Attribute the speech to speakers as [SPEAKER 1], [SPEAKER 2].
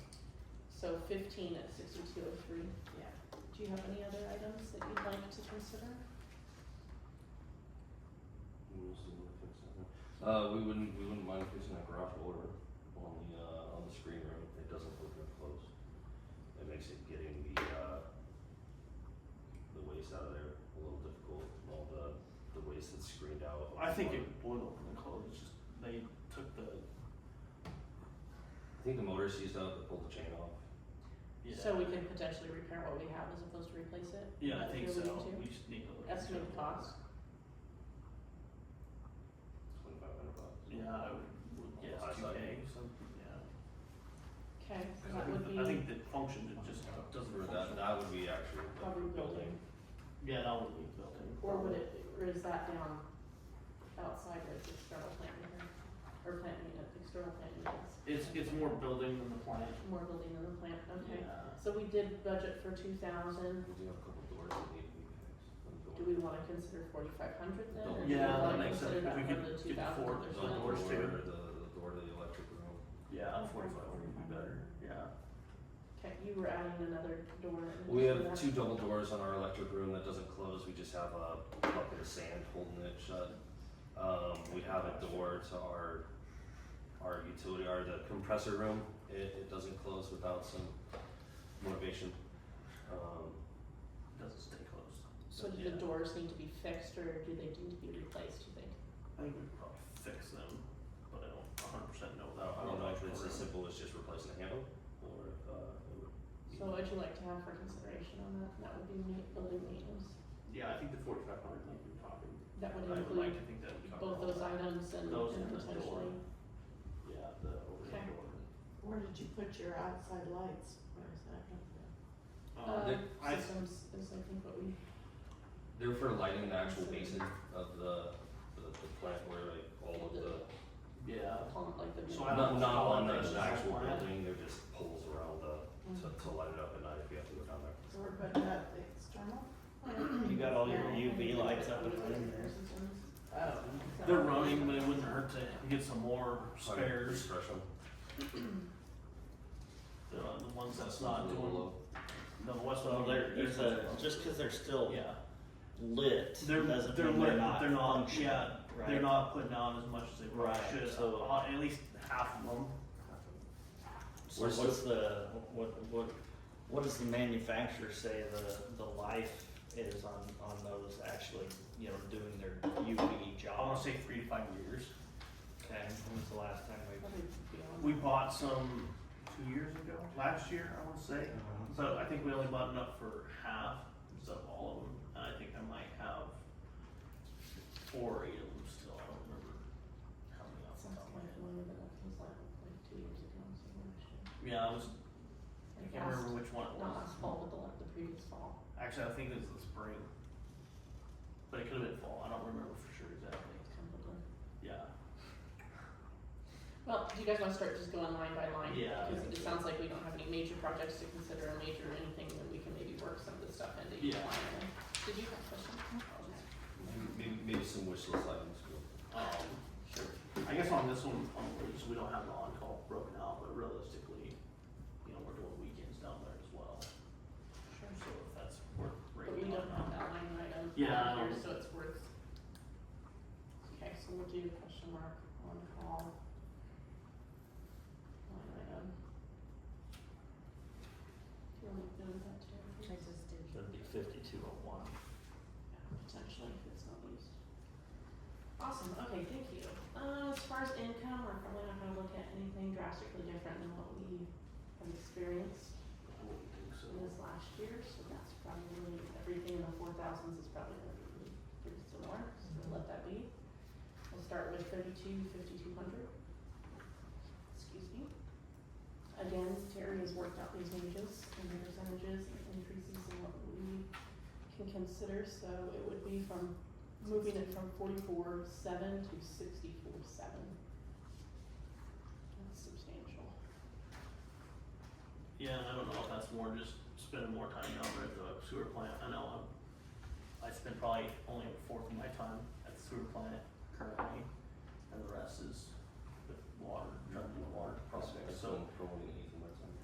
[SPEAKER 1] So fifteen at sixty-two oh three, yeah. Do you have any other items that you'd like to consider?
[SPEAKER 2] We'll see what fix that one. Uh, we wouldn't, we wouldn't mind fixing that garage door on the, uh, on the screen room, it doesn't look that close. It makes it getting the, uh, the waste out of there a little difficult, all the, the waste that's screened out.
[SPEAKER 3] I think it would open and close, it's just they took the,
[SPEAKER 2] I think the motor seized up, they pulled the chain off.
[SPEAKER 3] yeah.
[SPEAKER 1] So we can potentially repair what we have as opposed to replace it?
[SPEAKER 3] Yeah, I
[SPEAKER 1] That's
[SPEAKER 3] think
[SPEAKER 1] what
[SPEAKER 3] so,
[SPEAKER 1] we need
[SPEAKER 3] we just need to look.
[SPEAKER 1] to Estimate the
[SPEAKER 3] into it.
[SPEAKER 1] cost?
[SPEAKER 2] Twenty-five hundred bucks.
[SPEAKER 3] Yeah, I would, would guess
[SPEAKER 2] High
[SPEAKER 3] two
[SPEAKER 2] side.
[SPEAKER 3] K, something, yeah.
[SPEAKER 1] Okay, so
[SPEAKER 3] 'Cause I
[SPEAKER 1] that would
[SPEAKER 3] think,
[SPEAKER 1] be,
[SPEAKER 3] the- I think the function, it just doesn't
[SPEAKER 2] Or
[SPEAKER 3] function.
[SPEAKER 2] that, that would be actually uh,
[SPEAKER 1] Probably
[SPEAKER 2] the building.
[SPEAKER 3] Yeah, that would be building.
[SPEAKER 1] or would it, or is that down outside of the external plant unit? Or plant unit, external plant units?
[SPEAKER 3] It's, it's more building than the plant.
[SPEAKER 1] More building than the plant, okay.
[SPEAKER 3] Yeah.
[SPEAKER 1] So we did budget for two thousand.
[SPEAKER 2] We do have a couple doors that need to be fixed. on the
[SPEAKER 1] Do
[SPEAKER 2] building.
[SPEAKER 1] we wanna consider forty-five hundred then? or do we
[SPEAKER 3] Yeah, that
[SPEAKER 1] wanna
[SPEAKER 3] makes sense.
[SPEAKER 1] consider
[SPEAKER 3] If we
[SPEAKER 1] that
[SPEAKER 3] could
[SPEAKER 1] one of the
[SPEAKER 3] get the
[SPEAKER 1] $2,000 one?
[SPEAKER 2] There's a door,
[SPEAKER 3] Ford, there's no doors
[SPEAKER 2] the,
[SPEAKER 3] too.
[SPEAKER 2] the door to the electric room.
[SPEAKER 3] Yeah, forty-five would be better, yeah.
[SPEAKER 1] Okay, you were adding another door. in
[SPEAKER 2] We
[SPEAKER 1] for that.
[SPEAKER 2] have two double doors on our electric room that doesn't close, we just have a bucket of sand holding it shut. Um, we have a door to our, our utility, our the compressor room, it, it doesn't close without some motivation. Um,
[SPEAKER 3] Doesn't stay closed.
[SPEAKER 1] So do
[SPEAKER 2] yeah.
[SPEAKER 1] the doors need to be fixed or do they need to be replaced, do you think?
[SPEAKER 3] I think we could probably fix them, but I don't a hundred percent know
[SPEAKER 2] I don't,
[SPEAKER 3] without.
[SPEAKER 2] I don't know if it's as simple as just replacing the handle, or if, uh, it would. be-
[SPEAKER 1] So what'd you like to have for consideration on that? That would be ma- building maintenance.
[SPEAKER 3] Yeah, I think the forty-five hundred, like you're talking,
[SPEAKER 1] That would
[SPEAKER 3] I would like
[SPEAKER 1] include
[SPEAKER 3] to think that would cover.
[SPEAKER 1] both
[SPEAKER 3] all
[SPEAKER 1] those
[SPEAKER 3] that.
[SPEAKER 1] items and
[SPEAKER 3] Those
[SPEAKER 1] and
[SPEAKER 3] and the door.
[SPEAKER 1] potentially,
[SPEAKER 3] Yeah, the
[SPEAKER 1] Okay.
[SPEAKER 3] overhead door.
[SPEAKER 4] Where did you put your outside lights? Where is that going
[SPEAKER 3] Um,
[SPEAKER 1] uh,
[SPEAKER 2] there-
[SPEAKER 3] I-
[SPEAKER 1] systems is I think what we,
[SPEAKER 2] They're for lighting the actual basin of the, the, the plant where like all of the
[SPEAKER 3] yeah,
[SPEAKER 1] call it like the.
[SPEAKER 3] So I
[SPEAKER 2] Not, not on
[SPEAKER 3] Column versus
[SPEAKER 2] the actual
[SPEAKER 3] outline.
[SPEAKER 2] building, they're just poles around the, to, to light it up at night if you have to go down there.
[SPEAKER 4] So we're putting out the external?
[SPEAKER 5] You got all your
[SPEAKER 4] Yeah.
[SPEAKER 5] UV lights up and running.
[SPEAKER 4] Oh.
[SPEAKER 3] they're running, but it wouldn't hurt to get some more spares,
[SPEAKER 2] Refresh them.
[SPEAKER 3] the, Uh, the ones that's not
[SPEAKER 2] A little
[SPEAKER 3] doing,
[SPEAKER 2] low.
[SPEAKER 3] the west
[SPEAKER 5] So
[SPEAKER 3] one,
[SPEAKER 5] they're,
[SPEAKER 3] Mm-hmm. there's
[SPEAKER 5] there's a, just cause they're still
[SPEAKER 3] Yeah,
[SPEAKER 5] lit,
[SPEAKER 3] they're,
[SPEAKER 5] doesn't mean
[SPEAKER 3] they're
[SPEAKER 5] they're
[SPEAKER 3] lit, but
[SPEAKER 5] not
[SPEAKER 3] they're not,
[SPEAKER 5] functioning,
[SPEAKER 3] yeah,
[SPEAKER 5] right?
[SPEAKER 3] they're not putting on as much as they probably
[SPEAKER 5] Right,
[SPEAKER 3] should,
[SPEAKER 5] so-
[SPEAKER 3] uh, at least half of them.
[SPEAKER 5] So
[SPEAKER 2] Where's
[SPEAKER 5] what's the, what, what, what does the manufacturer say the, the life is on, on those actually, you know, doing their UV
[SPEAKER 3] I wanna
[SPEAKER 5] job?
[SPEAKER 3] say three to five years.
[SPEAKER 5] Okay, when was the last time we?
[SPEAKER 1] Probably beyond.
[SPEAKER 3] We bought some two years ago, last year, I wanna say. So I think we only bought enough for half, so all of them, and I think I might have four or eight of them still, I don't remember how many off the
[SPEAKER 1] Sounds
[SPEAKER 3] top of my
[SPEAKER 1] like
[SPEAKER 3] head.
[SPEAKER 1] one of the, that was like, like two years ago, so we're actually.
[SPEAKER 3] Yeah, I was, I
[SPEAKER 1] Like
[SPEAKER 3] can't
[SPEAKER 1] last-
[SPEAKER 3] remember which one it
[SPEAKER 1] Not
[SPEAKER 3] was.
[SPEAKER 1] last fall, but the, like, the previous fall.
[SPEAKER 3] Actually, I think it was the spring. But it could have been fall, I don't remember for sure exactly.
[SPEAKER 1] It's kind of a-
[SPEAKER 3] Yeah,
[SPEAKER 1] Well, do you guys wanna start just going line by line?
[SPEAKER 3] Yeah.
[SPEAKER 1] Cause it sounds like we don't have any major projects to consider, or major anything, that we can maybe work some of the stuff into each
[SPEAKER 3] Yeah.
[SPEAKER 1] line. item. Did you have a question?
[SPEAKER 2] Maybe, maybe some wish list items.
[SPEAKER 3] um,
[SPEAKER 2] Sure.
[SPEAKER 3] I guess on this one, on the lease, we don't have the on-call broken out, but realistically, you know, we're doing weekends down there as well.
[SPEAKER 1] Sure.
[SPEAKER 3] So if that's worth
[SPEAKER 1] But we
[SPEAKER 3] breaking
[SPEAKER 1] don't have
[SPEAKER 3] on
[SPEAKER 1] that line item
[SPEAKER 3] Yeah, I
[SPEAKER 1] on here,
[SPEAKER 3] don't-
[SPEAKER 1] so it's worth. Okay, so we'll do question mark on call. Line item. Do you want me to do that too?
[SPEAKER 4] I just did.
[SPEAKER 5] Should be fifty-two oh one.
[SPEAKER 1] Yeah, Potentially, if it's not used. Awesome, okay, thank you. Uh, as far as income, we're probably not gonna look at anything drastically different than what we have experienced
[SPEAKER 3] I wouldn't think so.
[SPEAKER 1] in this last year, so that's probably, everything in the four thousands is probably gonna be really pretty similar, so let that be. We'll start with thirty-two, fifty-two hundred. Excuse me. Again, Terry has worked out these wages and the percentages and increases and what we can consider, so it would be from, moving it from forty-four seven to sixty-four seven. That's substantial.
[SPEAKER 3] Yeah, and I don't know if that's more just spending more time down there at the sewer plant. I know I'm, I spend probably only a fourth of my time at the sewer plant currently, and the rest is with water, trying to do water projects. So
[SPEAKER 2] Probably